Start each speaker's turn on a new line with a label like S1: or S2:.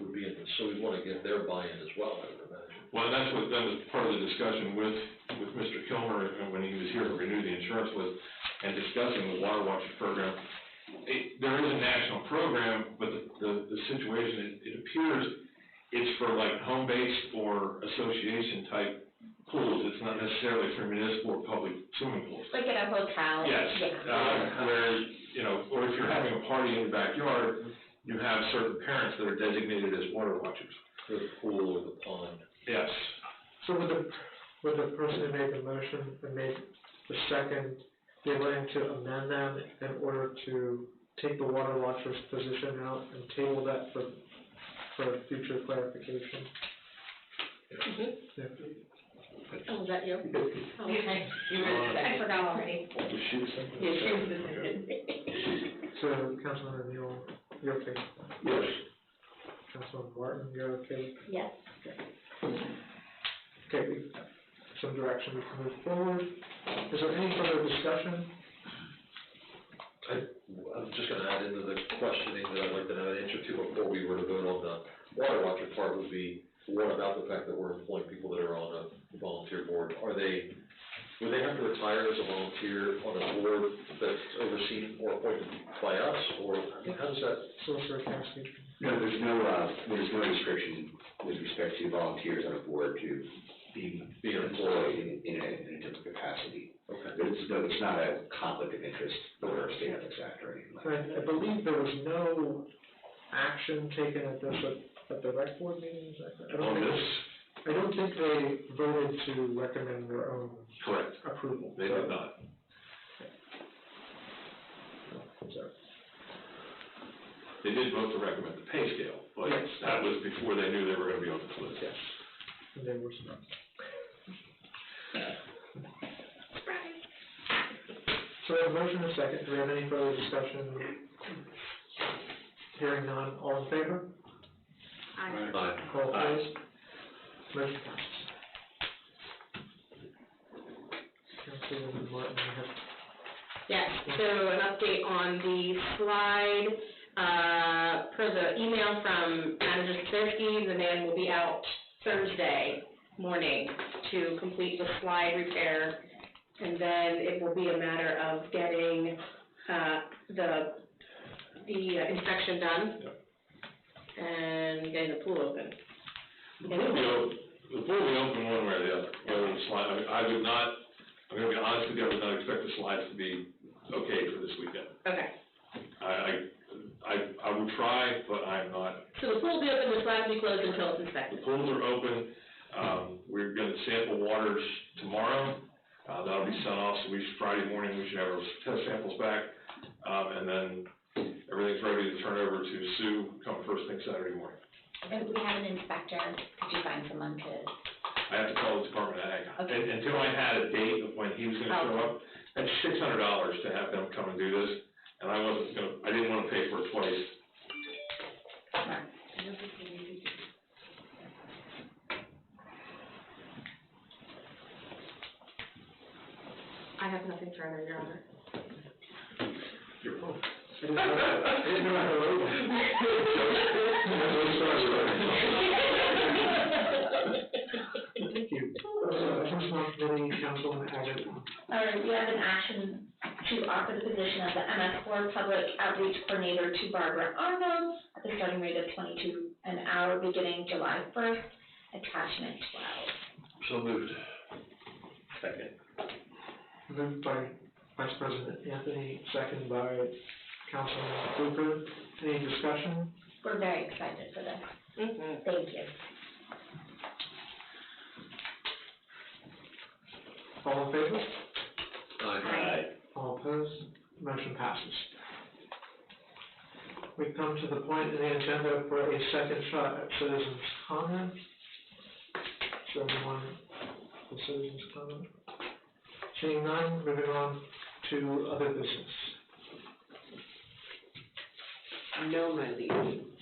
S1: would be, so we'd wanna get their buy-in as well, I would imagine.
S2: Well, that's what, that was part of the discussion with, with Mr. Kilmer, uh, when he was here to renew the insurance list, and discussing the water watcher program. It, there is a national program, but the, the, the situation, it, it appears it's for like home-based or association-type pools, it's not necessarily for municipal or public swimming pools.
S3: Like in a hotel.
S2: Yes,
S3: Yeah.
S2: uh, where, you know, or if you're having a party in your backyard, you have certain parents that are designated as water watchers.
S1: For the pool or the pond.
S2: Yes,
S4: So would the, would the person who made the motion and made the second be willing to amend them in order to take the water watcher's position out and table that for, for future clarification? Yeah.
S3: Oh, was that you? Oh, Okay.
S5: You were the
S3: I
S5: second.
S3: forgot already.
S5: Yeah, she was the second.
S4: So Councilman O'Neill, you're okay.
S1: Yes.
S4: Councilman Martin, you're okay.
S3: Yes.
S4: Okay, we- some direction we can move forward. Is there any further discussion?
S1: I'm just gonna add into the questioning that I'd like to have an answer to before we were to vote on the water watcher part would be, what about the fact that we're employing people that are on a volunteer board? Are they, would they have to retire as a volunteer on a board that's overseen or appointed by us, or I mean, how does that?
S4: Solicitor Cassidy?
S6: No, there's no, uh, there's no restriction with respect to volunteers on a board to be
S1: Be an
S6: employed
S1: employee.
S6: in, in a, in a different capacity.
S1: Okay.
S6: But it's, no, it's not a conflict of interest or a state ethics act or anything like that.
S4: I, I believe there was no action taken at this, at, at the rec board meeting, is that correct? I don't
S2: on
S4: think-
S2: this,
S4: I don't think they voted to recommend their own
S2: correct.
S4: approval.
S2: They did not.
S4: So-
S2: They did vote to recommend the pay scale, but
S4: Yes.
S2: that was before they knew they were gonna be on this list.
S4: Yes. And they were not. So we have a motion and a second. Do we have any further discussion? Hearing none, all in favor?
S3: I,
S1: Aye.
S4: All opposed? Motion passes. Councilwoman Martin, you have
S5: Yes, so an update on the slide, uh, per the email from Manager Sakirsky, the man will be out Thursday morning to complete the slide repair. And then it will be a matter of getting, uh, the, the inspection done. And getting the pool open.
S2: The pool will be open, the pool will be open one way or the other, whether the slide, I mean, I would not, I'm gonna be honest with you, I would not expect the slides to be okay for this weekend.
S5: Okay,
S2: I, I, I, I would try, but I'm not
S5: so the pool will be open, the slide will be closed until it's
S2: The
S5: inspected.
S2: pools are open, um, we're gonna sample waters tomorrow, uh, that'll be sent off, so we, should- Friday morning, we should have our test samples back. Um, and then everything's ready to turn over to Sue come first thing Saturday morning.
S7: And we have an inspector, could you find someone to,
S2: I have to call the Department of Ag,
S7: Okay.
S2: And- until I had a date of when he was gonna show up, that's six hundred dollars to have them come and do this, and I wasn't gonna, I didn't wanna pay for it twice.
S5: I have nothing further, Your Honor.
S2: You're welcome.
S4: I didn't know- I didn't know how to vote. Thank you. Uh, First one, committee, Councilman Abbott.
S7: or we have an action to offer the position of the MS four public outreach coordinator to Barbara Arnold at the starting rate of twenty-two an hour beginning July first, attachment twelve.
S1: So moved. Second.
S4: Moved by Vice President Anthony, second by Councilman Cooper. Any discussion?
S7: We're very excited for this,
S5: Mhm.
S7: thank you.
S4: All in favor?
S1: Aye.
S4: All opposed? Motion passes. We come to the point in the agenda for a second shot at citizens' comment. Is there anyone for citizens' comment? Seeing none, moving on to other business.
S5: No, my liege.
S2: Uh,